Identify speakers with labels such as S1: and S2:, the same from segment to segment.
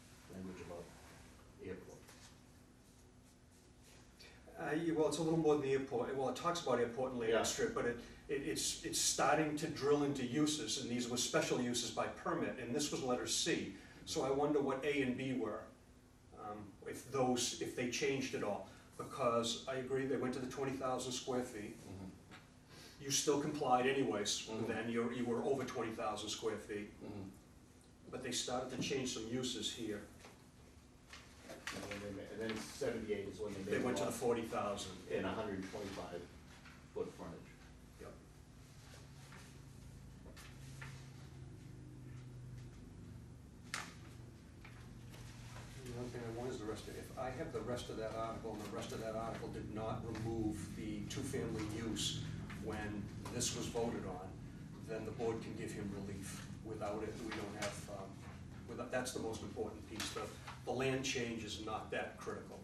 S1: I- Uh, well, it's a little more than the airport, well, it talks about airport and
S2: Yeah.
S1: land strip, but it, it, it's, it's starting to drill into uses, and these were special uses by permit, and this was letter C. So I wonder what A and B were, um, if those, if they changed at all, because I agree, they went to the twenty thousand square feet.
S2: Mhm.
S1: You still complied anyways,
S2: Mhm.
S1: then you're, you were over twenty thousand square feet,
S2: Mhm.
S1: but they started to change some uses here.
S2: And then they ma- And then seventy-eight is when they made.
S1: They went to the
S2: law
S1: forty thousand.
S2: And hundred and twenty-five foot frontage.
S1: Yep. The only thing I want is the rest of, if I have the rest of that article, and the rest of that article did not remove the two-family use when this was voted on, then the board can give him relief. Without it, we don't have, um, without, that's the most important piece, the, the land change is not that critical.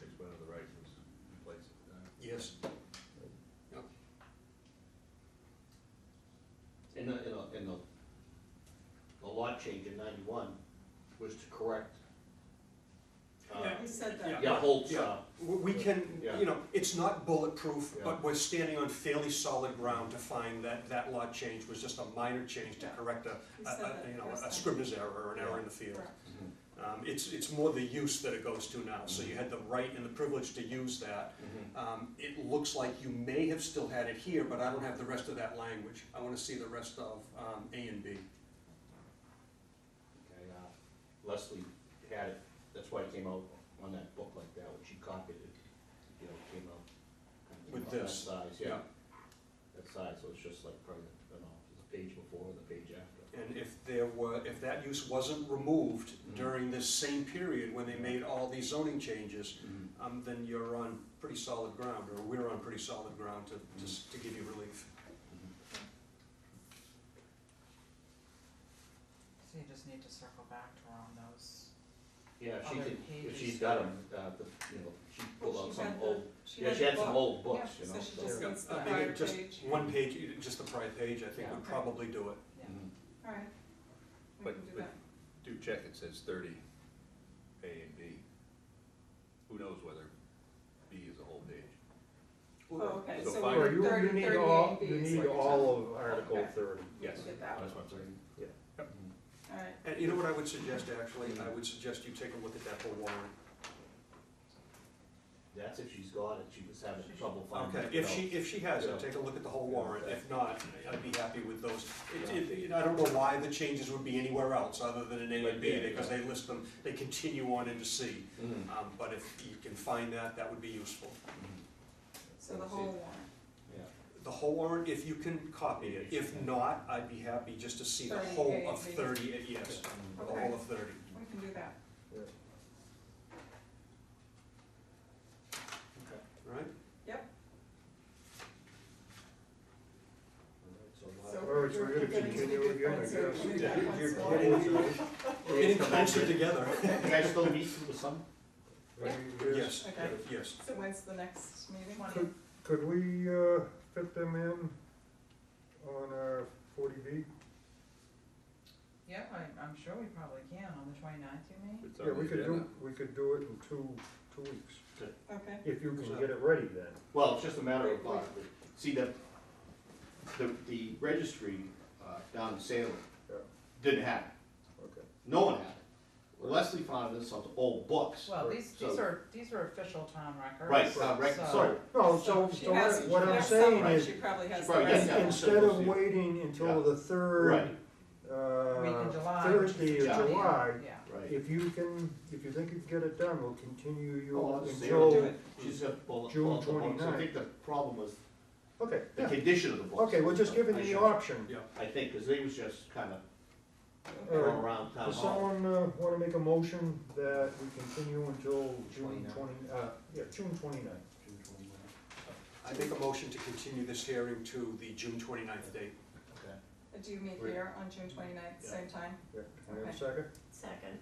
S3: Takes one of the rights was in place at the time.
S1: Yes.
S2: And the, and the, and the, the lot change in ninety-one was to correct. uh,
S1: Yeah.
S4: He said
S1: Yeah.
S4: that.
S2: Yeah, Holt's,
S1: Yeah.
S2: uh,
S1: We we can,
S2: Yeah.
S1: you know, it's not bulletproof,
S2: Yeah.
S1: but we're standing on fairly solid ground to find that that law change was just a minor change to
S4: Yeah.
S1: correct a,
S4: He
S1: a-
S4: said
S1: a-
S4: that
S1: you know,
S4: first
S1: a
S4: time.
S1: scribbler's error or an error in the field.
S4: Correct.
S2: Mm-hmm,
S1: Um, it's, it's more the use that it goes to now, so you had the right and the privilege to use that.
S2: mm-hmm.
S1: Um, it looks like you may have still had it here, but I don't have the rest of that language. I wanna see the rest of, um, A and B.
S2: Okay, uh, Leslie had it, that's why it came out on that book like that, when she copied it, you know, it came out. kind of came
S1: With
S2: out that
S1: this,
S2: Size, yeah, that size, so it's just like probably, I don't know, the page before and the page after.
S1: And if there were, if that use wasn't removed during this same period when they made all these zoning changes, um, then you're on pretty solid ground, or we're on pretty solid ground to, to, s- to give you relief.
S2: Mm-hmm.
S5: So you just need to circle back to her on those.
S2: Yeah, if she
S5: Other
S2: could, if
S5: pages.
S2: she's got them, uh, the, you know, she pulled
S4: Well,
S2: out
S4: she
S2: some
S4: had the-
S2: old,
S4: she
S2: yeah, she
S4: the
S2: had some
S4: book.
S2: old books,
S4: Yeah,
S2: you know, so.
S4: so she just
S1: Yeah,
S4: needs the
S1: I think
S4: prior
S1: it just-
S4: page.
S1: One page, you- just the prior page, I think would
S4: Yeah.
S1: probably do it.
S2: Mhm.
S4: All right, we
S3: But-
S4: can do
S3: but-
S4: that.
S3: Do check, it says thirty, A and B. Who knows whether B is a whole page?
S4: Oh, okay,
S3: so
S4: so
S3: fine.
S4: we're
S6: Or you,
S4: thirty,
S6: you
S4: thirty
S6: need all,
S4: and
S6: you
S4: Bs.
S6: need
S2: like-
S6: all of Article
S4: Okay.
S6: thirty.
S3: Yes,
S4: Get that
S2: That's what I'm saying, yeah. Mhm.
S4: All right,
S1: And you know what I would suggest, actually, I would suggest you take a look at that whole warrant.
S2: That's if she's got it, she was having trouble finding it.
S1: Okay, if
S2: so-
S1: she, if she has
S2: Yeah.
S1: it, take a look at the whole warrant, if not, I'd be happy with those. It, it, I don't know why the changes would be anywhere else, other than in A and B,
S2: Yeah, yeah.
S1: because they list them, they continue on into C.
S2: Mhm.
S1: Um, but if you can find that, that would be useful.
S2: Mhm.
S4: so the
S2: Let's see.
S4: whole warrant,
S2: Yeah.
S1: The whole warrant, if you can copy it, if not, I'd be happy just to see the
S4: 30
S1: whole of
S4: pages.
S1: thirty, yes,
S2: Mhm.
S1: the whole of thirty.
S4: we can do that.
S2: Okay.
S1: Right?
S2: All right,
S4: So
S2: so
S6: Or it's
S4: we're-
S6: we're gonna
S4: we're getting to
S6: continue
S4: the good
S6: again, I
S4: points here.
S6: guess.
S4: We'll do that
S1: You're-
S4: once
S1: you're
S4: in a while.
S1: kidding me. We're getting
S2: Come back
S1: closer
S2: in.
S1: together.
S2: You guys still meet through the summer?
S1: Yes,
S4: Okay,
S1: yes.
S4: so when's the next meeting?
S6: Could- Could we, uh, fit them in on our forty B?
S5: Yeah, I, I'm sure we probably can, on the twenty-ninth, you mean?
S3: It's on
S6: Yeah, we
S3: the
S6: could do,
S3: agenda.
S6: we could do it in two, two weeks,
S4: Okay,
S6: if you can get it ready then.
S2: Well, it's just a matter of, uh, see, the, the, the registry uh, down in Salem
S6: Yeah.
S2: didn't have it.
S6: Okay.
S2: No one had it. Leslie found this on old books.
S5: Well,
S6: Right,
S5: these,
S2: so-
S5: these are, these are official town records.
S2: Right, uh, right,
S5: so-
S2: sorry.
S6: No, so,
S4: she
S6: so
S4: has,
S6: what-
S4: she
S6: what I'm
S4: has some,
S6: saying
S4: but
S6: is,
S4: she probably has
S2: She
S4: the
S2: probably
S4: rest
S2: has
S4: of
S2: that.
S4: it.
S6: instead of waiting until the
S2: Right.
S6: third,
S5: Week in
S6: uh,
S5: July.
S6: Thursday of
S2: Yeah.
S6: July,
S5: Yeah.
S2: Right.
S6: if you can, if you think you can get it done, we'll continue
S2: Oh,
S6: you
S2: I'll just say
S6: until.
S2: we'll do it. She's got bullet,
S6: June
S2: bullet points. I
S6: 29.
S2: think the problem was
S6: Okay,
S2: the
S6: yeah.
S2: condition of the books.
S6: okay, we're just giving
S2: I
S6: the
S2: should-
S6: option.
S1: Yeah.
S2: I think, because they was just kind of
S6: All right.
S2: around town
S6: Does
S2: hall.
S6: someone, uh, wanna make a motion that we continue until June
S2: 29.
S6: twenty, uh, yeah, June twenty-ninth?
S2: June 29th.
S1: I make a motion to continue this hearing to the June twenty-ninth date.
S2: Okay.
S4: Do you meet
S2: Right.
S4: here on June twenty-ninth,
S2: Yeah.
S4: same time?
S6: Yeah, can I have a
S4: Okay.
S6: second?
S4: Second.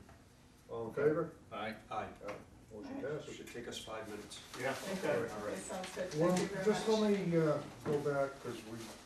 S6: All in favor?
S3: Aye.
S1: Aye.
S6: Motion
S4: All
S1: It
S6: passes.
S1: should take us five minutes.
S2: Yeah.
S4: Okay,
S6: Okay.
S4: okay, sounds good,
S6: Well,
S4: thank you very much.
S6: just let me, uh, go back, cause we